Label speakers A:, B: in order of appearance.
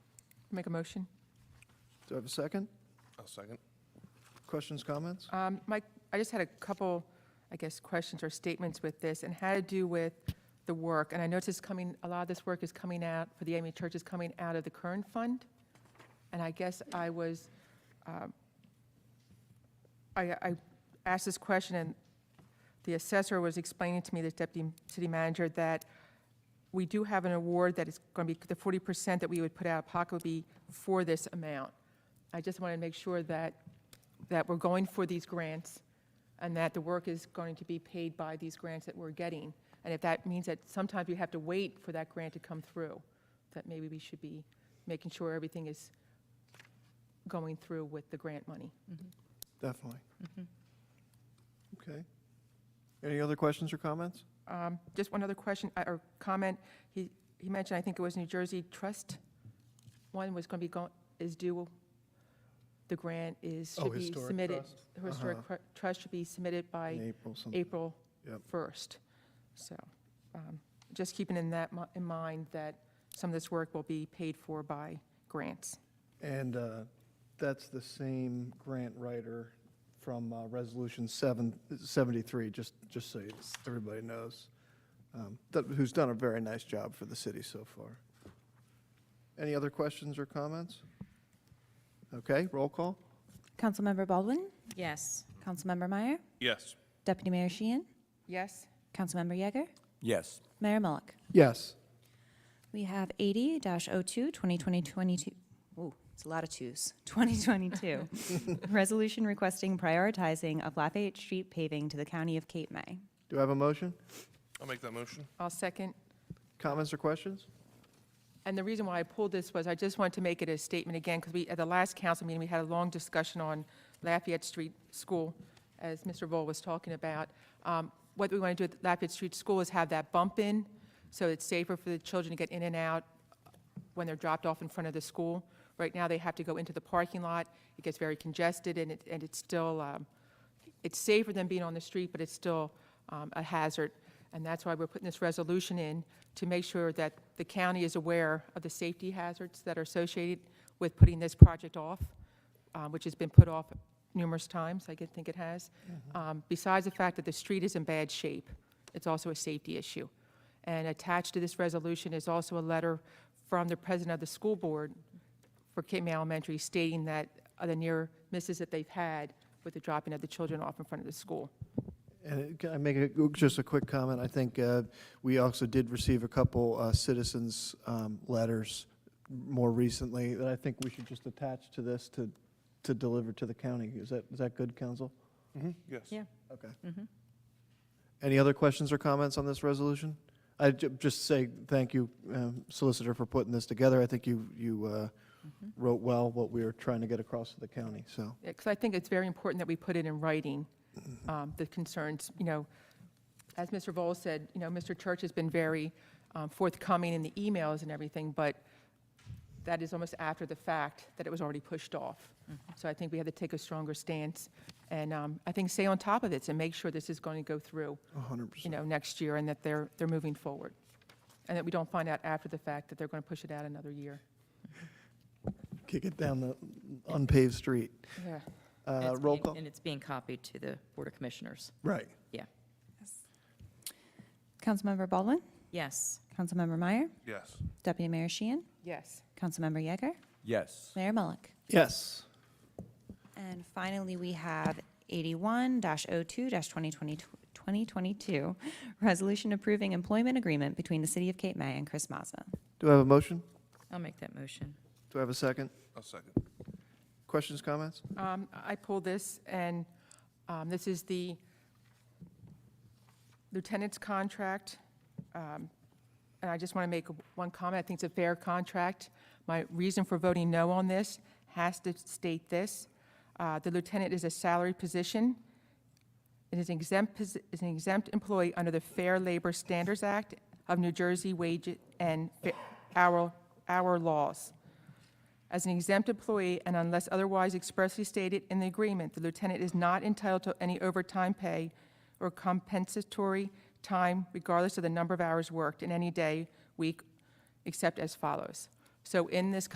A: Make a motion.
B: Do I have a second?
C: I'll second.
B: Questions, comments?
A: Um, Mike, I just had a couple, I guess, questions or statements with this, and had to do with the work. And I noticed it's coming, a lot of this work is coming out, for the AME Church is coming out of the current fund. And I guess I was, um, I I asked this question, and the assessor was explaining to me, the deputy city manager, that we do have an award that is going to be, the 40% that we would put out of pocket would be for this amount. I just wanted to make sure that that we're going for these grants and that the work is going to be paid by these grants that we're getting. And if that means that sometimes we have to wait for that grant to come through, that maybe we should be making sure everything is going through with the grant money.
B: Definitely. Okay. Any other questions or comments?
A: Um, Just one other question uh, or comment. He, he mentioned, I think it was New Jersey Trust, one was going to be, go- is due, the grant is,
C: Oh,
A: should be
C: Historic
A: submitted.
C: Trust? Uh-huh.
A: Historic cr- Trust should be submitted by
B: In April, some-
A: April
B: Mm. Yep.
A: 1st. So um, just keeping in that, mi- in mind that some of this work will be paid for by grants.
B: And uh, that's the same grant writer from uh, Resolution 7 73, just, just so you- everybody knows, um, that- who's done a very nice job for the city so far. Any other questions or comments? Okay, roll call?
D: Councilmember Baldwin,
E: Yes.
D: Councilmember Meyer,
C: Yes.
D: Deputy Mayor Sheehan,
A: Yes?
D: Councilmember Yeager,
F: Yes.
D: Mayor Mullick.
B: Yes.
D: We have 80-02, 2022, ooh, it's a lot of twos, 2022. Resolution requesting prioritizing of Lafayette Street paving to the County of Cape May.
B: Do I have a motion?
C: I'll make that motion.
A: I'll second.
B: Comments or questions?
A: And the reason why I pulled this was I just wanted to make it a statement again, because we, at the last council meeting, we had a long discussion on Lafayette Street School, as Mr. Vole was talking about. Um, What we want to do at Lafayette Street School is have that bump in, so it's safer for the children to get in and out when they're dropped off in front of the school. Right now, they have to go into the parking lot. It gets very congested, and it, and it's still, um, it's safer than being on the street, but it's still um, a hazard. And that's why we're putting this resolution in, to make sure that the county is aware of the safety hazards that are associated with putting this project off, uh, which has been put off numerous times, I could think it has. Um, Besides the fact that the street is in bad shape, it's also a safety issue. And attached to this resolution is also a letter from the president of the school board for Cape May Elementary stating that uh, the near misses that they've had with the dropping of the children off in front of the school.
B: And it- can I make a, just a quick comment? I think uh, we also did receive a couple uh, citizens' um, letters more recently that I think we should just attach to this to, to deliver to the county. Is that, is that good, council?
C: Yes.
E: Yeah.
B: Okay. Any other questions or comments on this resolution? I ju- just say thank you, um, Solicitor, for putting this together. I think you, you uh, wrote well what we were trying to get across to the county, so.
A: Because I think it's very important that we put it in writing, um, the concerns, you know, as Mr. Vole said, you know, Mr. Church has been very um, forthcoming in the emails and everything, but that is almost after the fact that it was already pushed off. So I think we have to take a stronger stance, and um, I think stay on top of this and make sure this is going to go through.
B: hundred
A: you know, next year, and that they're, they're moving forward. And that we don't find out after the fact that they're going to push it out another year.
B: Kick it down the unpaved street.
A: Yeah.
E: And
B: Uh,
E: it's
B: Roll
E: being-
B: call?
E: And it's being copied to the Board of Commissioners.
B: Right.
D: Councilmember Baldwin,
E: Yes.
D: Councilmember Meyer,
C: Yes.
D: Deputy Mayor Sheehan,
A: Yes.
D: Councilmember Yeager,
F: Yes.
D: Mayor Mullick.
B: Yes.
D: And finally, we have 81-02-2022, resolution approving employment agreement between the City of Cape May and Chris Mazza.
B: Do I have a motion?
E: I'll make that motion.
B: Do I have a second?
C: I'll second.
B: Questions, comments?
A: Um, I pulled this, and um, this is the lieutenant's contract. Um, And I just want to make one comment. I think it's a fair contract. My reason for voting no on this has to state this. Uh, The lieutenant is a salary position. It is an exempt, posi- is an exempt employee under the Fair Labor Standards Act of New Jersey wage and fa- hour, hour laws. As an exempt employee, and unless otherwise expressly stated in the agreement, the lieutenant is not entitled to any overtime pay or compensatory time regardless of the number of hours worked in any day, week, except as follows. So in this